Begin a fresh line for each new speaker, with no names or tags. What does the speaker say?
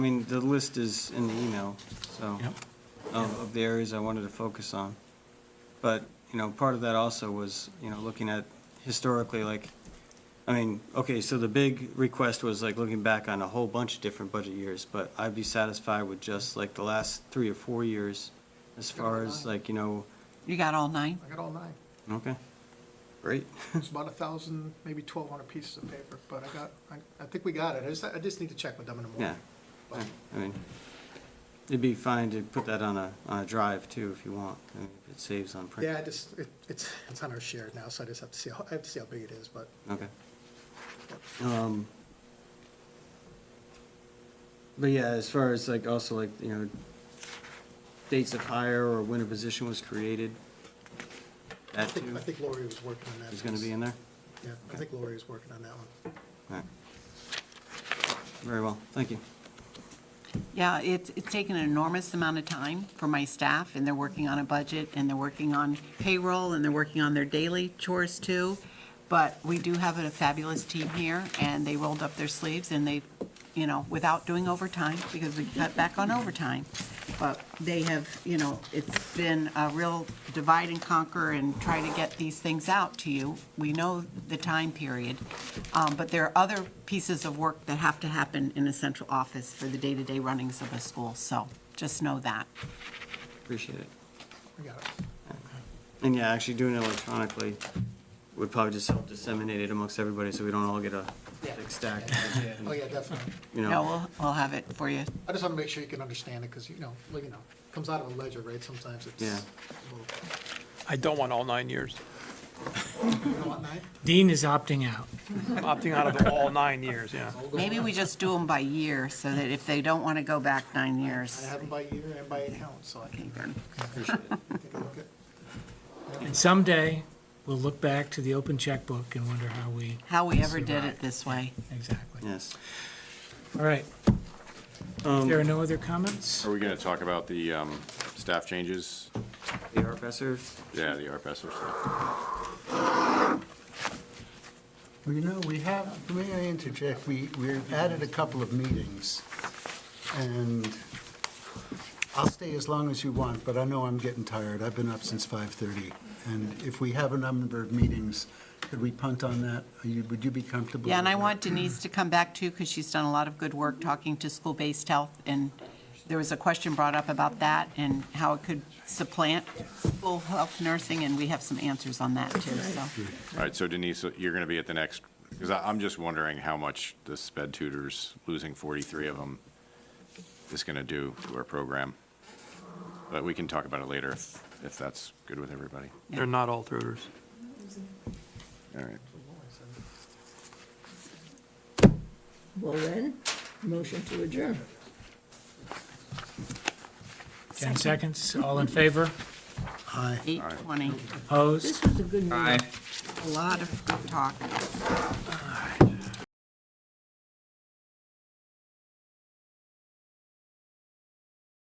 I mean, the list is in the email, so,
Yep.
of, of the areas I wanted to focus on. But, you know, part of that also was, you know, looking at historically, like, I mean, okay, so the big request was like looking back on a whole bunch of different budget years, but I'd be satisfied with just like the last three or four years as far as like, you know,
You got all nine?
I got all nine.
okay, great.
It's about a thousand, maybe twelve hundred pieces of paper, but I got, I, I think we got it. I just, I just need to check with them in the
Yeah,
morning.
I I mean, it'd be fine to put that on a, on a drive too, if you want, I mean, if it saves on print.
Yeah, I just, it, it's, it's on our share now, so I just have to see, how I have to see how big it is, but
Okay. Um, But yeah, as far as like, also like, you know, dates of hire or when a position was created,
I
that
think,
too
I think Lori was working on that.
is gonna be in there?
Yeah, I think Lori was working on that one.
All right. Very well, thank you.
Yeah, it's, it's taken an enormous amount of time for my staff, and they're working on a budget, and they're working on payroll, and they're working on their daily chores too. But we do have a fabulous team here, and they rolled up their sleeves, and they, you know, without doing overtime, because we cut back on overtime. But they have, you know, it's been a real divide and conquer and try to get these things out to you. We know the time period. Um, But there are other pieces of work that have to happen in a central office for the day-to-day runnings of a school, so just know that.
Appreciate it.
We got it.
And yeah, actually doing it electronically would probably just help disseminate it amongst everybody, so we don't all get a big stack.
Oh, yeah, definitely.
You
No,
know,
we'll, we'll have it for you.
I just wanna make sure you can understand it, because, you know, like, you know, comes out of a ledger, right? Sometimes it's.
Yeah.
a
I don't want all nine years.
little- You know what, nine?
Dean is opting out.
I'm opting out of the all nine years, yeah.
Maybe we just do them by year, so that if they don't want to go back nine
I
years.
have them by year and by account, so I
Okay,
can
good.
take a look at.
And someday, we'll look back to the open checkbook and wonder how we,
How we ever did it this way.
exactly.
yes.
All right. If there are no other comments?
Are we going to talk about the um, staff changes?
The RFSers,
Yeah, the RFS or stuff.
Well, you know, we have, may I interject, we, we've added a couple of meetings, and I'll stay as long as you want, but I know I'm getting tired, I've been up since 5:30, and if we have a number of meetings, could we punt on that? Are you- Would you be comfortable?
Yeah, and I
with that?
want Denise to come back too, because she's done a lot of good work talking to school-based health, and there was a question brought up about that and how it could supplant school health nursing, and we have some answers on that too, so.
All right, so Denise, you're going to be at the next, because I'm just wondering how much the sped tutors, losing 43 of them, is going to do to our program. But we can talk about it later if if that's good with everybody.
They're not all tutors.
All right.
Well then, motion to adjourn.
10 seconds, all in favor?
Aye.
Eight twenty,
Opposed?
This was a good meeting.
a lot of good talk.